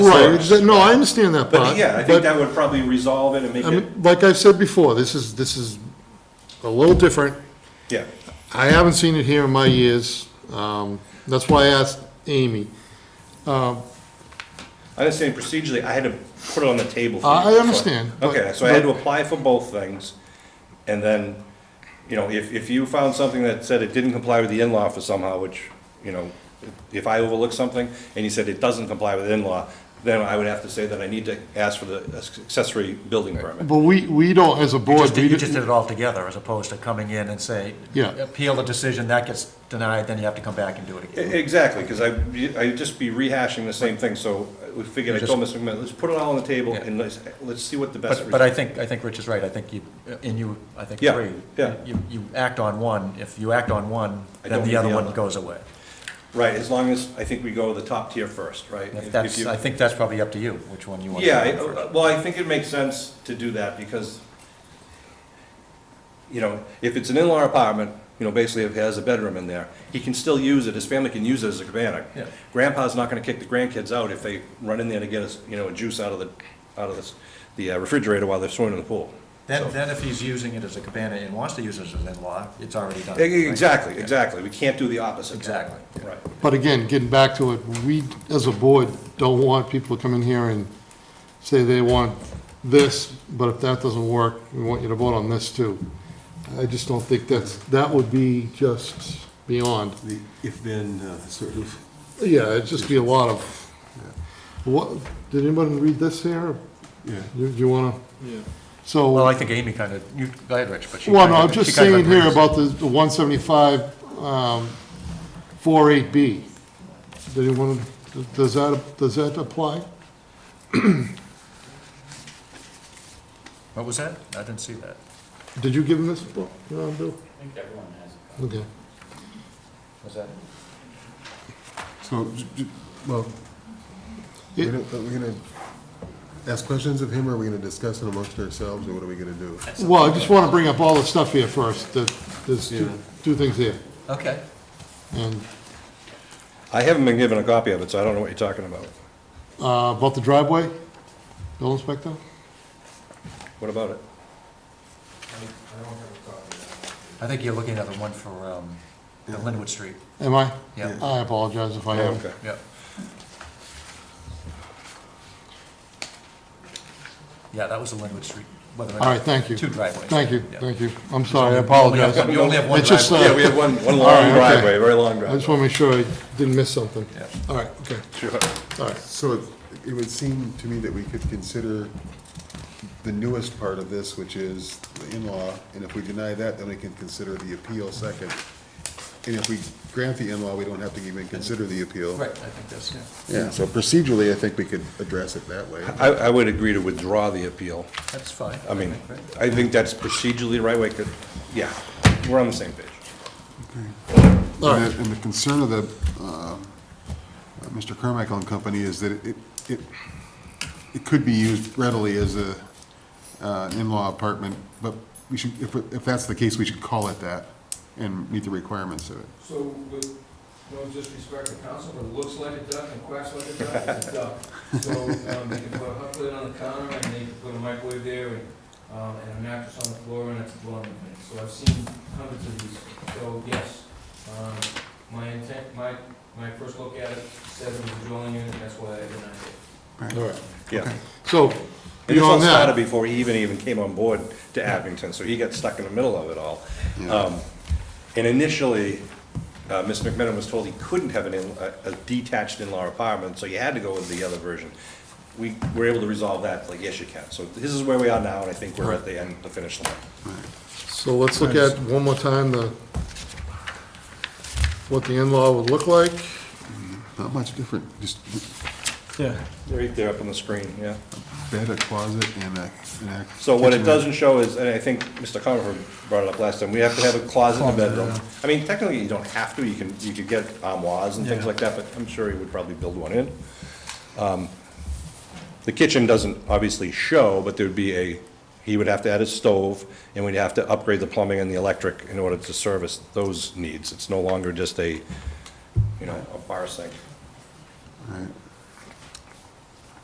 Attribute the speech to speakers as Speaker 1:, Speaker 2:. Speaker 1: Right,
Speaker 2: So-
Speaker 1: exa- no, I understand that part.
Speaker 2: But yeah, I
Speaker 1: but,
Speaker 2: think that would probably resolve it and make
Speaker 1: I
Speaker 2: it,
Speaker 1: mean, Like I've said before, this is, this is a little different.
Speaker 2: yeah,
Speaker 1: I haven't seen it here in my years. Um, That's why I asked Amy.
Speaker 2: I was saying procedurally, I had to put it on the table. for
Speaker 1: I- I
Speaker 2: you, so-
Speaker 1: understand, but-
Speaker 2: Okay, so I had to apply for both things, and then, you know, if, if you found something that said it didn't comply with the in-law for somehow, which, you know, if I overlook something, and you said it doesn't comply with in-law, then I would have to say that I need to ask for the accessory building permit.
Speaker 1: But we, we don't, as a board,
Speaker 3: Just,
Speaker 1: we
Speaker 3: you just did
Speaker 1: didn't,
Speaker 3: it all together, as opposed to coming in and say,
Speaker 1: Yeah.
Speaker 3: appeal the decision, that gets denied, then you have to come back and do it
Speaker 2: E-
Speaker 3: again.
Speaker 2: Exactly, because I, I'd just be rehashing the same thing, so we figured, I told Mr. McMillan, let's put it all on the table, and let's, let's see what the best.
Speaker 3: But, but I think, I think Rich is right, I think you, and you, I think
Speaker 2: Yeah,
Speaker 3: agree.
Speaker 2: yeah.
Speaker 3: You, you act on one, if you act on one,
Speaker 2: I
Speaker 3: then
Speaker 2: don't
Speaker 3: the
Speaker 2: need
Speaker 3: other
Speaker 2: the
Speaker 3: one
Speaker 2: other.
Speaker 3: goes away.
Speaker 2: Right, as long as, I think we go the top tier first, right? If-
Speaker 3: If
Speaker 2: if
Speaker 3: That's,
Speaker 2: you-
Speaker 3: I think that's probably up to you, which one you want. to
Speaker 2: Yeah,
Speaker 3: do first.
Speaker 2: I- uh, well, I think it makes sense to do that, because, you know, if it's an in-law apartment, you know, basically if it has a bedroom in there, he can still use it, his family can use it as a cabana.
Speaker 3: Yeah.
Speaker 2: Grandpa's not gonna kick the grandkids out if they run in there to get us, you know, a juice out of the, out of this- the uh, refrigerator while they're swimming in the pool.
Speaker 3: Then, then if he's using it as a cabana and wants to use it as an in-law, it's already done.
Speaker 2: E-
Speaker 3: right?
Speaker 2: Exactly, exactly, we can't do the opposite.
Speaker 3: Exactly.
Speaker 2: Right,
Speaker 1: but again, getting back to it, we, as a board, don't want people to come in here and say they want this, but if that doesn't work, we want you to vote on this too. I just don't think that's, that would be just beyond.
Speaker 4: The if-then uh, sort of,
Speaker 1: Yeah, it'd just be a lot of, what, did anyone read this here?
Speaker 4: yeah.
Speaker 1: You, you wanna? Yeah. So.
Speaker 3: Well, I think Amy kind of, you, go ahead, Rich, but she.
Speaker 1: Well,
Speaker 3: kind
Speaker 1: no,
Speaker 3: of-
Speaker 1: I'm
Speaker 3: she
Speaker 1: just
Speaker 3: kind of
Speaker 1: saying here
Speaker 3: agrees.
Speaker 1: about the the 175, um, 48B. Does anyone, does that, does that apply?
Speaker 3: What was that? I didn't see that.
Speaker 1: Did you give him this book, uh, Bill? I think everyone
Speaker 3: Was that?
Speaker 4: So, j- j- well,
Speaker 1: has.
Speaker 4: we're
Speaker 1: Okay.
Speaker 4: gonna- are we gonna ask questions of him, or are we gonna discuss it amongst ourselves, or what are we gonna do?
Speaker 1: It- Well, I just want to bring up all the stuff here first, that, there's two, two things here.
Speaker 3: Okay.
Speaker 1: And
Speaker 2: I haven't been given a copy of it, so I don't know what you're talking about.
Speaker 1: uh, about the driveway, Bill Inspector?
Speaker 2: What about it?
Speaker 3: I think you're looking at the one for, um, the Linwood Street.
Speaker 1: Am I?
Speaker 3: Yeah.
Speaker 1: I apologize if I am.
Speaker 2: Okay.
Speaker 3: Yep. Yeah, that was the Linwood Street. All
Speaker 1: All right, thank you.
Speaker 3: Two driveways.
Speaker 1: Thank you,
Speaker 3: Yeah.
Speaker 1: thank you. I'm sorry, I
Speaker 3: only have-
Speaker 1: apologize.
Speaker 3: we only have one
Speaker 1: It's just, uh,
Speaker 3: driveway.
Speaker 2: Yeah, we have one, one
Speaker 1: All right,
Speaker 2: long
Speaker 1: okay.
Speaker 2: driveway, very long
Speaker 1: I just
Speaker 2: driveway.
Speaker 1: want to make sure I didn't miss something.
Speaker 3: Yeah.
Speaker 1: All right, okay,
Speaker 2: Sure.
Speaker 1: all right.
Speaker 4: So it- it would seem to me that we could consider the newest part of this, which is the in-law, and if we deny that, then we can consider the appeal second. And if we grant the in-law, we don't have to even consider the appeal.
Speaker 3: Right, I think that's, yeah.
Speaker 4: Yeah, so procedurally, I think we could address it that way.
Speaker 2: I, I would agree to withdraw the appeal.
Speaker 3: That's fine.
Speaker 2: I mean,
Speaker 3: think,
Speaker 2: I
Speaker 3: right?
Speaker 2: think that's procedurally the right way, 'cause- yeah, we're on the same page.
Speaker 1: All right.
Speaker 4: And the- and the concern of the, um, uh, Mr. Carmichael and Company is that it, it, it could be used readily as a, uh, an in-law apartment, but we should, if, if that's the case, we should call it that and meet the requirements of it.
Speaker 5: So with no disrespect to council, but it looks like a duck and quacks like a duck, it's a duck. So um, you can put a hot plate on the counter and then you can put a microwave there and, um, and a mattress on the floor and it's blowing. So I've seen hundreds of these. So yes, um, my intent, my, my first look at it said it was a dwelling unit, that's why I denied it.
Speaker 1: All right,
Speaker 2: Yeah.
Speaker 1: so,
Speaker 2: And this all
Speaker 1: beyond
Speaker 2: started
Speaker 1: that,
Speaker 2: before he even, even came on board to Abington, so he got stuck in the middle of it all.
Speaker 4: Yeah.
Speaker 2: Um, And initially, uh, Ms. McMenamin was told he couldn't have an, in- a- a detached in-law apartment, so you had to go with the other version. We were able to resolve that, like, yes, you can. So this is where we are now, and I think we're at the end, the finish line.
Speaker 1: so let's look at one more time the, what the in-law would look like.
Speaker 4: Not much different, just
Speaker 2: Right there up on the screen, yeah.
Speaker 4: bed, a closet, and a, and a.
Speaker 2: So what it
Speaker 4: kitchenette.
Speaker 2: doesn't show is, and I think Mr. Conover brought it up last time, we have to have a closet in the bedroom. I mean, technically, you don't have to, you can, you could get armoires and things like that, but I'm sure he would probably build one in. Um, The kitchen doesn't obviously show, but there'd be a, he would have to add a stove, and we'd have to upgrade the plumbing and the electric in order to service those needs. It's no longer just a, you know, a bar sink.
Speaker 4: Right.